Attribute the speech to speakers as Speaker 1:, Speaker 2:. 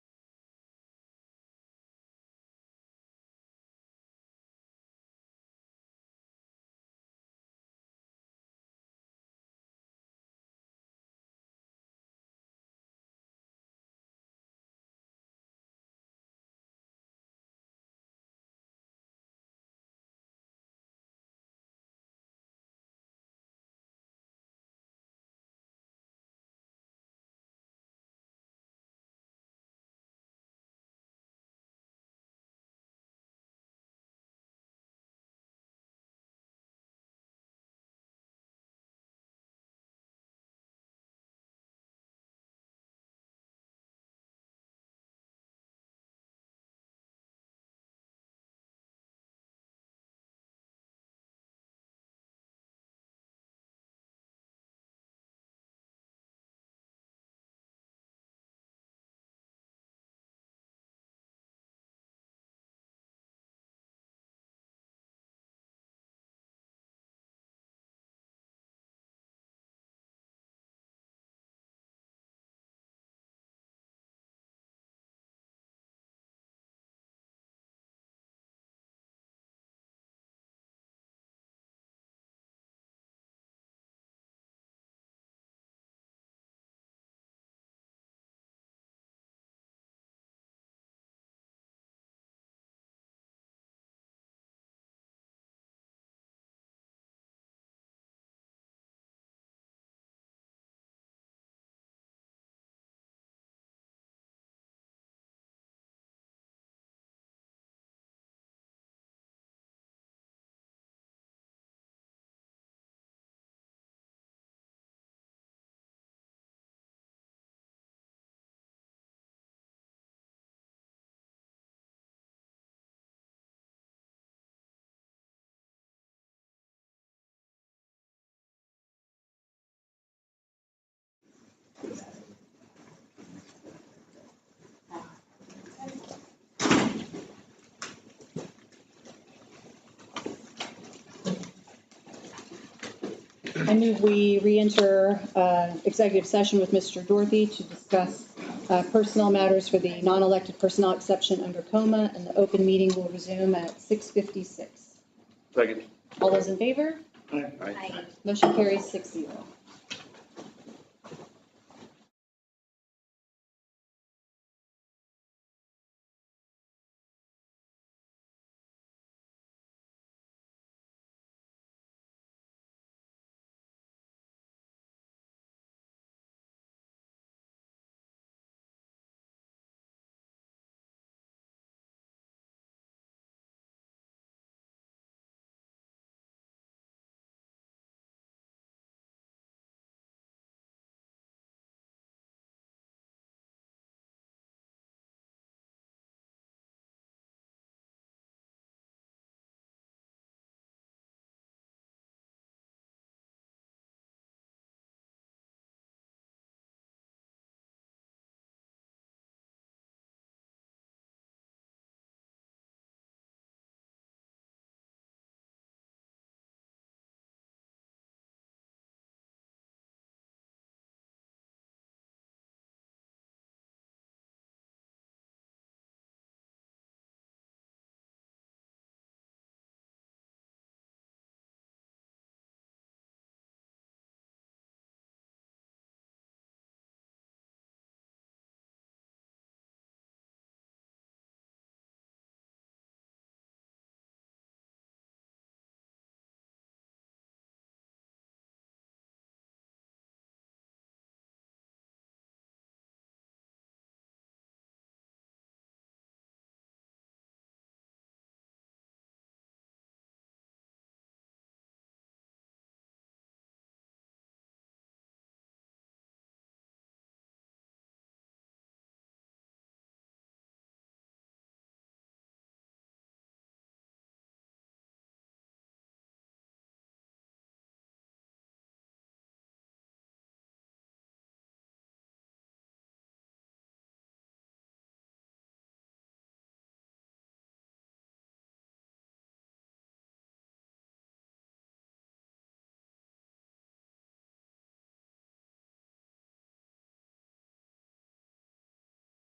Speaker 1: I move we re-enter uh, executive session with Mr. Dorothy to discuss uh, personnel matters for the non-elected personnel exception under coma, and the open meeting will resume at 6:56.
Speaker 2: Second.
Speaker 1: All those in favor?
Speaker 2: Aye.
Speaker 1: Motion carries six zero.